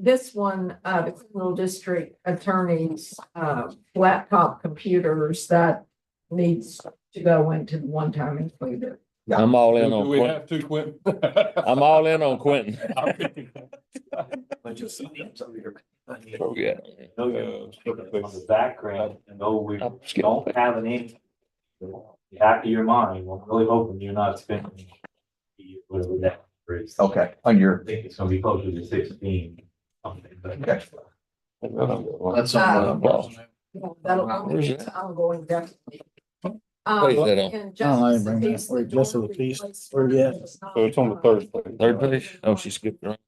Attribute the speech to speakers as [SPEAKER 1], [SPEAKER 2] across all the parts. [SPEAKER 1] This one, uh, the criminal district attorney's, uh, laptop computers that needs to go into the one-time included.
[SPEAKER 2] I'm all in
[SPEAKER 3] Do
[SPEAKER 2] on
[SPEAKER 3] we
[SPEAKER 2] Quentin.
[SPEAKER 3] have to, Quentin?
[SPEAKER 2] I'm all in on Quentin.
[SPEAKER 4] But you'll see them somewhere.
[SPEAKER 2] Oh, yeah.
[SPEAKER 4] Million people On the background, and though we
[SPEAKER 2] I'm skipping.
[SPEAKER 4] don't have an income. the Back of your mind, I'm really hoping you're not spending. Whatever that is.
[SPEAKER 5] Okay, on
[SPEAKER 4] I
[SPEAKER 5] your,
[SPEAKER 4] think it's gonna be closer to sixteen. something, but-
[SPEAKER 5] Okay.
[SPEAKER 1] That's
[SPEAKER 5] uh,
[SPEAKER 1] on.
[SPEAKER 2] Well,
[SPEAKER 1] That'll, I'm,
[SPEAKER 2] Where's that?
[SPEAKER 1] I'm going definitely. Um,
[SPEAKER 2] Where's that on?
[SPEAKER 6] Oh, I ain't bringing that. Wait, just of the feast. Where you at?
[SPEAKER 3] So Oh, it's on the third page.
[SPEAKER 2] Third page? Oh, she skipped around.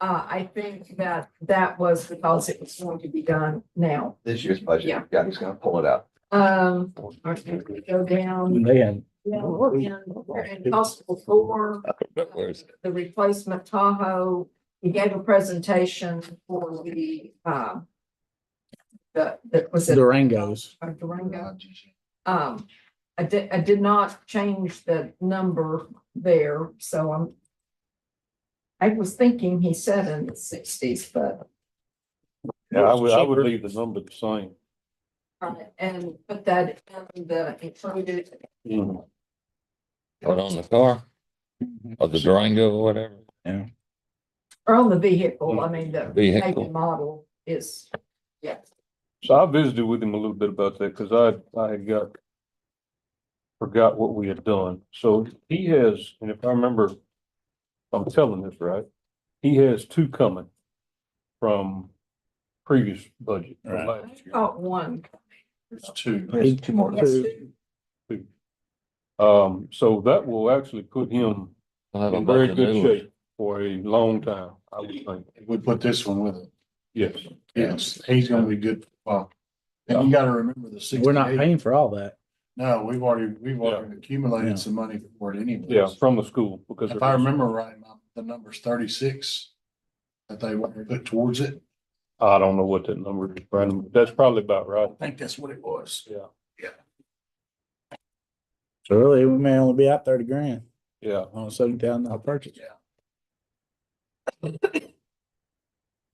[SPEAKER 1] Uh, I think that that was because it was going to be done now.
[SPEAKER 5] this year's budget,
[SPEAKER 1] Yeah.
[SPEAKER 5] yeah, he's gonna pull it out.
[SPEAKER 1] Um, I think we go down.
[SPEAKER 6] They had.
[SPEAKER 1] Yeah, we're in, we're in possible four.
[SPEAKER 2] But where's it?
[SPEAKER 1] the replacement Tahoe. He gave a presentation for the, uh, the, that was it
[SPEAKER 6] Durangos.
[SPEAKER 1] or Durango. Um, I did, I did not change the number there, so I'm I was thinking he said in the sixties, but,
[SPEAKER 3] Yeah, I would, I would leave the number the same.
[SPEAKER 1] uh, and put that in the included.
[SPEAKER 2] Put on the car or the Durango or whatever
[SPEAKER 1] Or on the vehicle, I mean, the make and
[SPEAKER 2] vehicle.
[SPEAKER 1] model is, yeah.
[SPEAKER 3] So I visited with him a little bit about that, cause I, I had got. Forgot what we had done, so he has, and if I remember, I'm telling this right, he has two coming. From previous budget. from
[SPEAKER 6] Right.
[SPEAKER 1] I
[SPEAKER 3] last year.
[SPEAKER 1] caught one.
[SPEAKER 6] There's two more.
[SPEAKER 3] Um, so that will actually put him
[SPEAKER 2] We'll have a
[SPEAKER 3] in
[SPEAKER 2] bunch
[SPEAKER 3] very
[SPEAKER 2] of
[SPEAKER 3] good
[SPEAKER 2] new ones.
[SPEAKER 3] shape for a long time, I would think,
[SPEAKER 7] we put this one with it.
[SPEAKER 3] yes.
[SPEAKER 7] Yes, he's gonna be good. Well, and you gotta remember the sixty-eight.
[SPEAKER 6] We're not paying for all that.
[SPEAKER 7] No, we've already, we've already
[SPEAKER 6] Yeah.
[SPEAKER 7] accumulated some money for it anyways.
[SPEAKER 3] Yeah, from the school, because.
[SPEAKER 7] If I remember right, my- the number's thirty-six that they want to put towards it.
[SPEAKER 3] I don't know what that number is, Brandon, but that's probably about right.
[SPEAKER 7] I think that's what it was.
[SPEAKER 6] So really, we may only be out thirty grand
[SPEAKER 3] Yeah,
[SPEAKER 6] on a seventy thousand dollar purchase.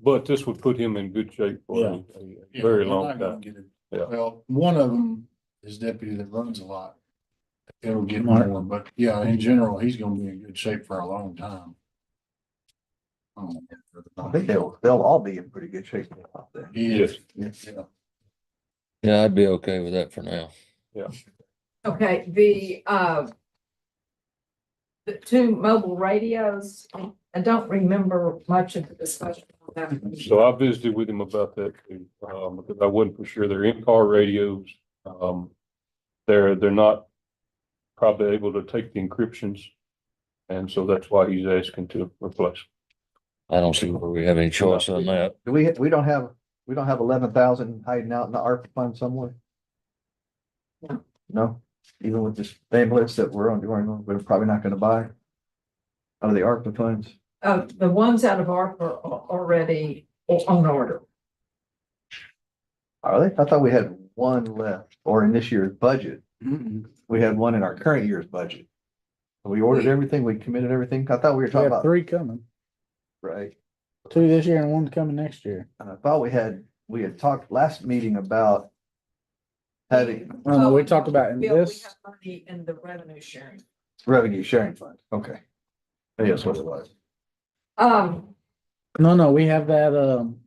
[SPEAKER 3] but this would put him in good shape for a- a
[SPEAKER 7] Yeah,
[SPEAKER 3] very
[SPEAKER 7] they're
[SPEAKER 3] long
[SPEAKER 7] not gonna
[SPEAKER 3] time.
[SPEAKER 7] get it.
[SPEAKER 3] Yeah.
[SPEAKER 7] Well, one of them is deputy that runs a lot. It'll get
[SPEAKER 6] Mark.
[SPEAKER 7] more, but yeah, in general, he's gonna be in good shape for a long time. Um,
[SPEAKER 5] I think they'll, they'll all be in pretty good shape out there.
[SPEAKER 7] he is, yeah.
[SPEAKER 2] Yeah, I'd be okay with that for now.
[SPEAKER 1] Okay, the, uh, the two mobile radios, I don't remember much of the discussion on that.
[SPEAKER 3] So I visited with him about that too, um, because I wasn't for sure. They're in-car radios. Um, they're, they're not probably able to take the encryptions. And so that's why he's asking to replace.
[SPEAKER 2] I don't see where we have any choice on that.
[SPEAKER 5] Do we, we don't have, we don't have eleven thousand hiding out in the ARPA fund somewhere?
[SPEAKER 1] No.
[SPEAKER 5] No, even with this ambulance that we're on, we're probably not gonna buy. Out of the ARPA funds,
[SPEAKER 1] Uh, the ones out of ARPA are already on order.
[SPEAKER 5] are they? I thought we had one left, or in this year's budget, we had one in our current year's budget. We ordered everything, we committed everything, I thought we were
[SPEAKER 6] We
[SPEAKER 5] talking
[SPEAKER 6] have
[SPEAKER 5] about,
[SPEAKER 6] three coming,
[SPEAKER 5] right?
[SPEAKER 6] two this year and one coming next year.
[SPEAKER 5] And I thought we had, we had talked last meeting about having
[SPEAKER 6] I know, Uh, we talked about in
[SPEAKER 1] Bill, we
[SPEAKER 6] this-
[SPEAKER 1] have Money in the revenue sharing.
[SPEAKER 5] revenue sharing fund. Okay. Yes, what it was.
[SPEAKER 1] Um,
[SPEAKER 6] No, no, we have that, um,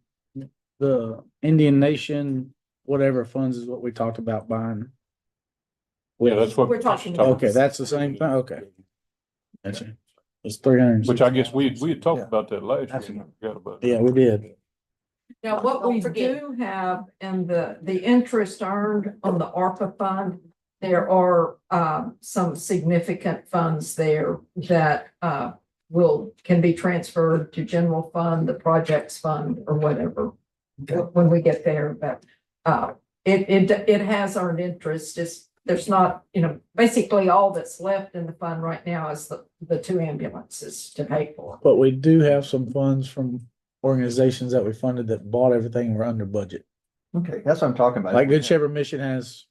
[SPEAKER 6] the Indian Nation, whatever funds is what we talked about buying.
[SPEAKER 3] Yeah, that's what.
[SPEAKER 1] We're talking
[SPEAKER 3] Oh.
[SPEAKER 1] about-
[SPEAKER 6] Okay, that's the same thing, okay. That's it. It's three hundred.
[SPEAKER 3] Which I guess we, we had talked
[SPEAKER 5] Yeah.
[SPEAKER 3] about that last
[SPEAKER 5] That's
[SPEAKER 3] year.
[SPEAKER 5] enough.
[SPEAKER 3] Forgot about
[SPEAKER 6] Yeah,
[SPEAKER 3] it.
[SPEAKER 6] we did.
[SPEAKER 1] now what
[SPEAKER 8] Don't
[SPEAKER 1] we
[SPEAKER 8] forget.
[SPEAKER 1] do have in the, the interest earned on the ARPA fund, there are, um, some significant funds there that, uh, will, can be transferred to general fund, the projects fund or whatever. When we get there, but, uh, it, it, it has earned interest, just, there's not, you know, basically all that's left in the fund right now is the, the two ambulances to pay for.
[SPEAKER 6] But we do have some funds from organizations that we funded that bought everything, we're under budget.
[SPEAKER 5] Okay, that's what I'm talking about.
[SPEAKER 6] Like Good Shepherd Mission has.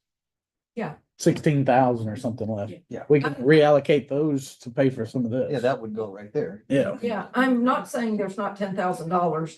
[SPEAKER 1] Yeah.
[SPEAKER 6] Sixteen thousand or something left.
[SPEAKER 5] Yeah.
[SPEAKER 6] We can reallocate those to pay for some of this.
[SPEAKER 5] Yeah, that would go right there.
[SPEAKER 6] Yeah.
[SPEAKER 1] Yeah, I'm not saying there's not ten thousand dollars